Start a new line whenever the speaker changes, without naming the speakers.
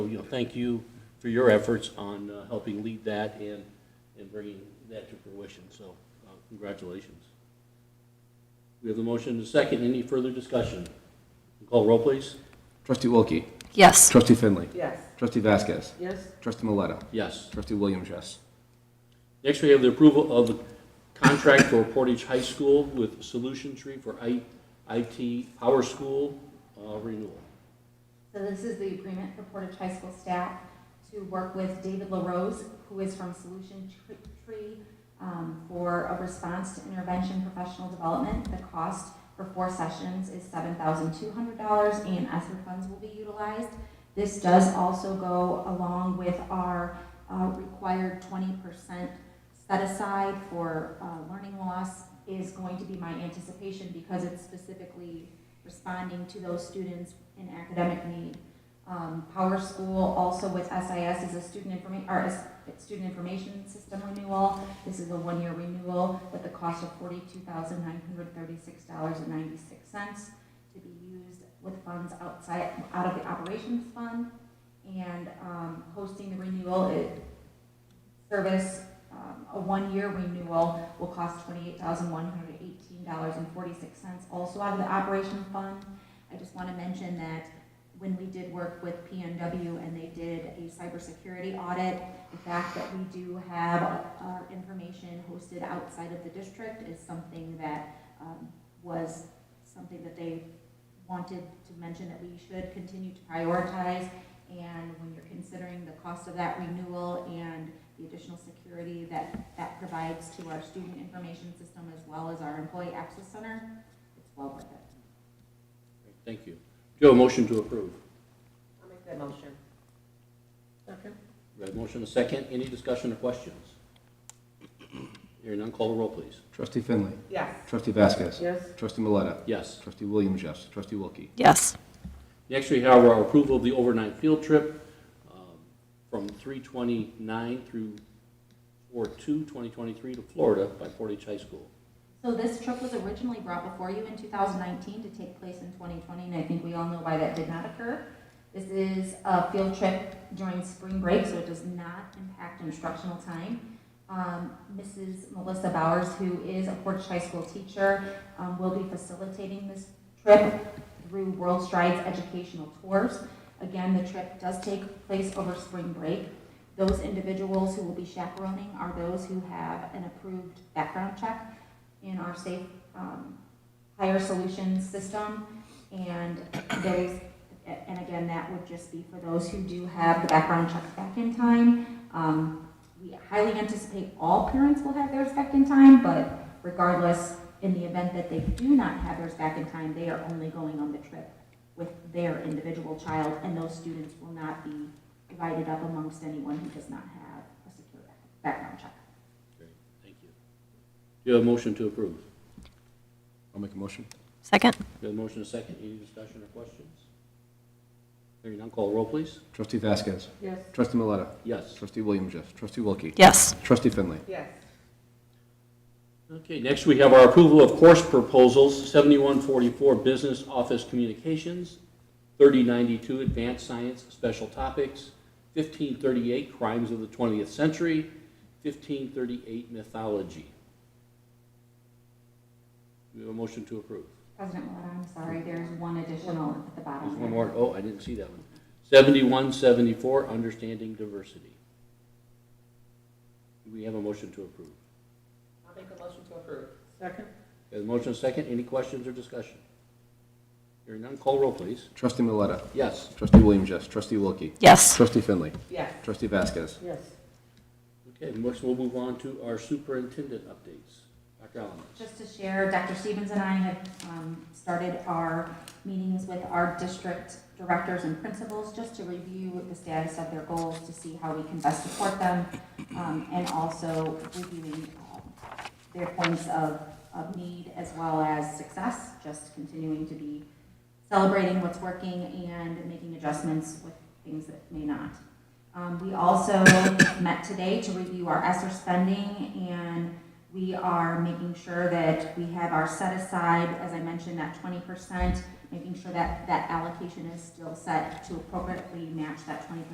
know, thank you for your efforts on uh, helping lead that and, and bringing that to fruition, so uh, congratulations. We have the motion to second. Any further discussion? Call roll, please.
Trustee Wilkie.
Yes.
Trustee Finley.
Yes.
Trustee Vasquez.
Yes.
Trustee Maleta.
Yes.
Trustee Williams, yes.
Next, we have the approval of the contract for Portage High School with Solution Tree for I- IT Power School uh, renewal.
So this is the agreement for Portage High School staff to work with David LaRose, who is from Solution Tr- Tree, um, for a response to intervention professional development. The cost for four sessions is seven thousand two hundred dollars, and ESSER funds will be utilized. This does also go along with our uh, required twenty percent set aside for uh, learning loss is going to be my anticipation because it's specifically responding to those students in academic need. Um, Power School also with SIS is a student informa, or is student information system renewal. This is a one-year renewal with the cost of forty-two thousand nine hundred thirty-six dollars and ninety-six cents to be used with funds outside, out of the operations fund. And, um, hosting the renewal, it, service um, A one-year renewal will cost twenty-eight thousand one hundred eighteen dollars and forty-six cents, also out of the operation fund. I just want to mention that when we did work with PNW and they did a cybersecurity audit, the fact that we do have our information hosted outside of the district is something that um, was something that they wanted to mention that we should continue to prioritize. And when you're considering the cost of that renewal and the additional security that that provides to our student information system as well as our employee access center, it's well worth it.
Thank you. Do you have a motion to approve?
I'll make that motion. Second?
We have a motion to second. Any discussion or questions? Hearing none, call the roll, please.
Trustee Finley.
Yes.
Trustee Vasquez.
Yes.
Trustee Maleta.
Yes.
Trustee Williams, yes. Trustee Wilkie.
Yes.
Next, we have our approval of the overnight field trip um, from 3/29 through 4/2/2023 to Florida by Portage High School.
So this trip was originally brought before you in 2019 to take place in 2020, and I think we all know why that did not occur. This is a field trip during spring break, so it does not impact instructional time. Um, Mrs. Melissa Bowers, who is a Portage High School teacher, um, will be facilitating this trip through World Strides Educational Tours. Again, the trip does take place over spring break. Those individuals who will be chaperoning are those who have an approved background check in our safe um, hire solutions system. And there's, and again, that would just be for those who do have the background checks back in time. Um, We highly anticipate all parents will have theirs back in time, but regardless, in the event that they do not have theirs back in time, they are only going on the trip with their individual child, and those students will not be divided up amongst anyone who does not have a secure background check.
Thank you. Do you have a motion to approve?
I'll make a motion.
Second?
We have a motion to second. Any discussion or questions? Hearing none, call the roll, please.
Trustee Vasquez.
Yes.
Trustee Maleta.
Yes.
Trustee Williams, yes. Trustee Wilkie.
Yes.
Trustee Finley.
Yes.
Okay, next we have our approval of course proposals, 7144 Business Office Communications, 3092 Advanced Science Special Topics, 1538 Crimes of the 20th Century, 1538 Mythology. Do we have a motion to approve?
President Maleta, I'm sorry, there's one additional at the bottom.
There's one more, oh, I didn't see that one. 7174 Understanding Diversity. Do we have a motion to approve?
I'll make a motion to approve. Second?
There's a motion and a second, any questions or discussion? Hearing none, call roll, please.
Trustee Maleta.
Yes.
Trustee Williams, yes. Trustee Wilkie.
Yes.
Trustee Finley.
Yes.
Trustee Vasquez.
Yes.
Okay, next we'll move on to our superintendent updates. Dr. Allen.
Just to share, Dr. Stevens and I have um, started our meetings with our district directors and principals just to review the status of their goals, to see how we can best support them, um, and also reviewing um, their points of, of need as well as success, just continuing to be celebrating what's working and making adjustments with things that may not. Um, We also met today to review our ESSER spending and we are making sure that we have our set aside, as I mentioned, that twenty percent, making sure that that allocation is still set to appropriately match that twenty percent